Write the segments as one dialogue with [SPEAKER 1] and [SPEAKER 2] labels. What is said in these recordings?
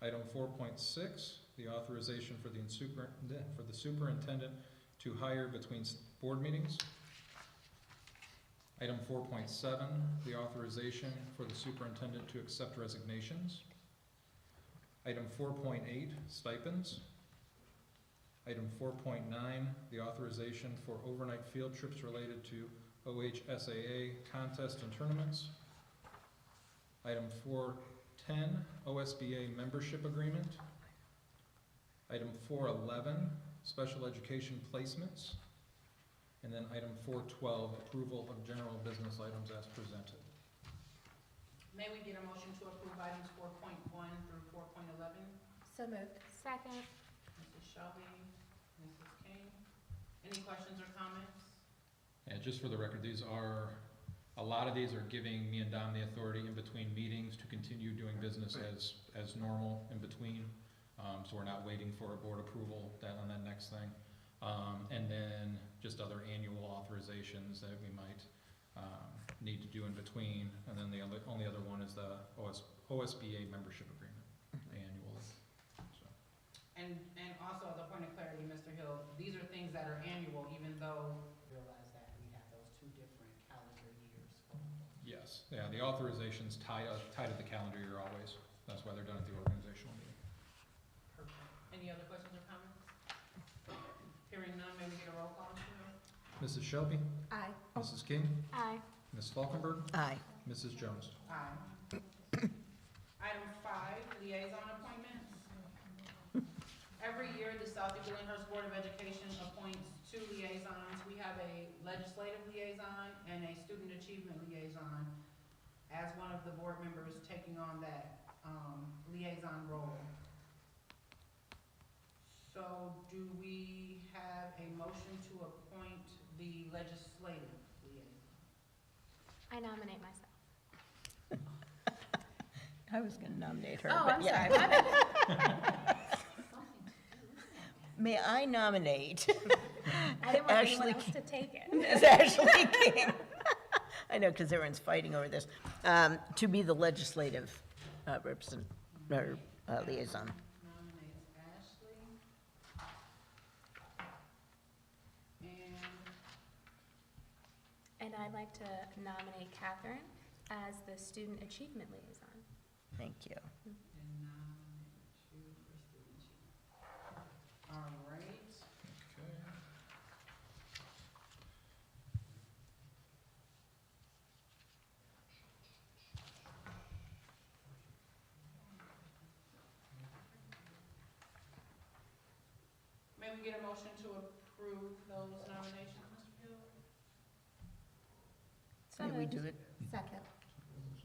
[SPEAKER 1] Item four point six, the authorization for the super, for the superintendent to hire between s- board meetings. Item four point seven, the authorization for the superintendent to accept resignations. Item four point eight, stipends. Item four point nine, the authorization for overnight field trips related to OHSAA contests and tournaments. Item four ten, OSBA membership agreement. Item four eleven, special education placements. And then item four twelve, approval of general business items as presented.
[SPEAKER 2] May we get a motion to approve items four point one through four point eleven?
[SPEAKER 3] So moved.
[SPEAKER 4] Second.
[SPEAKER 2] Mrs. Shelby, Mrs. King. Any questions or comments?
[SPEAKER 1] And just for the record, these are, a lot of these are giving me and Dom the authority in between meetings to continue doing business as, as normal in between. Um, so we're not waiting for a board approval that, on that next thing. Um, and then just other annual authorizations that we might, um, need to do in between. And then the other, only other one is the OS, OSBA membership agreement, annual, so.
[SPEAKER 2] And, and also, as a point of clarity, Mr. Hill, these are things that are annual, even though. Realize that we have those two different calendar years.
[SPEAKER 1] Yes, yeah, the authorization's tied, uh, tied to the calendar year always, that's why they're done at the organizational meeting.
[SPEAKER 2] Any other questions or comments? Hearing none, may we get a roll call, Cheryl?
[SPEAKER 1] Mrs. Shelby,
[SPEAKER 3] Aye.
[SPEAKER 1] Mrs. King,
[SPEAKER 4] Aye.
[SPEAKER 1] Ms. Falkenberg,
[SPEAKER 3] Aye.
[SPEAKER 1] Mrs. Jones.
[SPEAKER 2] Aye. Item five, liaison appointments. Every year, the South Southie Billingshurst Board of Education appoints two liaisons. We have a legislative liaison and a student achievement liaison as one of the board members taking on that, um, liaison role. So do we have a motion to appoint the legislative liaison?
[SPEAKER 4] I nominate myself.
[SPEAKER 3] I was gonna nominate her.
[SPEAKER 4] Oh,
[SPEAKER 3] but
[SPEAKER 4] I'm
[SPEAKER 3] yeah.
[SPEAKER 4] sorry. my bad.
[SPEAKER 3] May I nominate
[SPEAKER 4] I didn't want
[SPEAKER 3] Ashley
[SPEAKER 4] anyone else to take it.
[SPEAKER 3] Ms. Ashley King? I know, because everyone's fighting over this, um, to be the legislative uh, represent, or uh, liaison.
[SPEAKER 2] nominates Ashley. And
[SPEAKER 4] And I'd like to nominate Catherine as the student achievement liaison.
[SPEAKER 3] Thank you.
[SPEAKER 2] and nominate you for student achievement. All right,
[SPEAKER 1] Okay.
[SPEAKER 2] may we get a motion to approve those nominations, Mr. Hill?
[SPEAKER 4] So
[SPEAKER 3] May we
[SPEAKER 4] moved.
[SPEAKER 3] do it?
[SPEAKER 4] Second.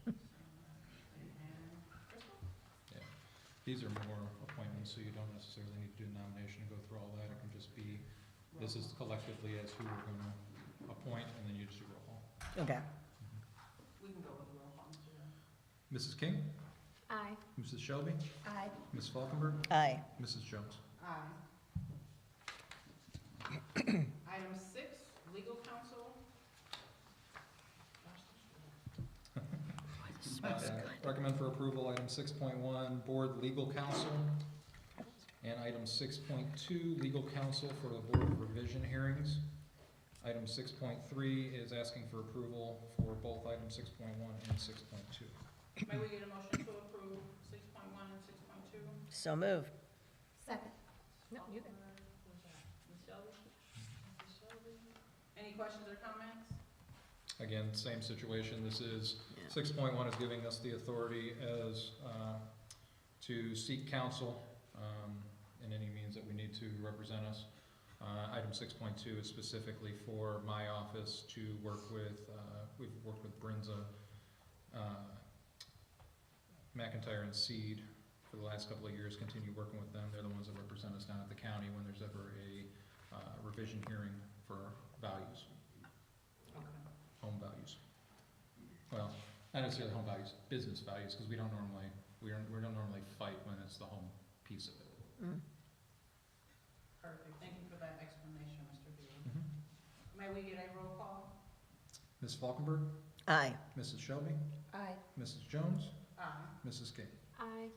[SPEAKER 2] And Crystal?
[SPEAKER 1] These are more appointments, so you don't necessarily need to do nomination and go through all that, it can just be, this is collectively as who we're gonna appoint, and then you just do roll call.
[SPEAKER 3] Okay.
[SPEAKER 2] We can go with the roll call, Mr. Hill.
[SPEAKER 1] Mrs. Mm-hmm. King,
[SPEAKER 4] Aye.
[SPEAKER 1] Mrs. Shelby,
[SPEAKER 4] Aye.
[SPEAKER 1] Ms. Falkenberg,
[SPEAKER 3] Aye.
[SPEAKER 1] Mrs. Jones.
[SPEAKER 2] Aye. Item six, legal counsel. Gosh, this is-
[SPEAKER 1] Uh, Recommend for approval, item six point one, board legal counsel. And item six point two, legal counsel for the board of revision hearings. Item six point three is asking for approval for both item six point one and six point two.
[SPEAKER 2] May we get a motion to approve six point one and six point two?
[SPEAKER 3] So moved.
[SPEAKER 4] Second. No, you can.
[SPEAKER 2] Ms. Shelby? Ms. Shelby? Any questions or comments?
[SPEAKER 1] Again, same situation, this is,
[SPEAKER 3] Yeah.
[SPEAKER 1] six point one is giving us the authority as, uh, to seek counsel, um, in any means that we need to represent us. Uh, item six point two is specifically for my office to work with, uh, we've worked with Brinza, uh, McIntyre and Seed for the last couple of years, continue working with them, they're the ones that represent us down at the county when there's ever a, uh, revision hearing for values
[SPEAKER 2] Okay.
[SPEAKER 1] home values. Well, not necessarily home values, business values, because we don't normally, we don't, we don't normally fight when it's the home piece of it.
[SPEAKER 4] Mm-hmm.
[SPEAKER 3] Mm.
[SPEAKER 2] Perfect, thank you for that explanation, Mr. Beal. May we get a roll call?
[SPEAKER 1] Ms. Falkenberg,
[SPEAKER 3] Aye.
[SPEAKER 1] Mrs. Shelby,
[SPEAKER 4] Aye.
[SPEAKER 1] Mrs. Jones,
[SPEAKER 2] Aye.
[SPEAKER 1] Mrs. King.
[SPEAKER 4] Aye.